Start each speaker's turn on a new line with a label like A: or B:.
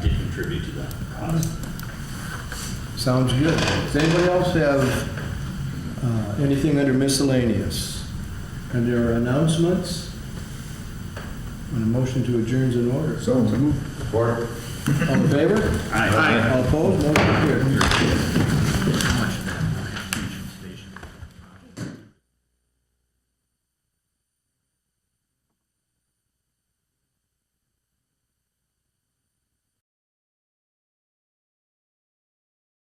A: contribute to that cost.
B: Sounds good. Does anybody else have uh, anything under miscellaneous? Under announcements? And a motion to adjourn's in order.
C: So moved. Support.
B: All in favor?
A: Aye.
B: All opposed?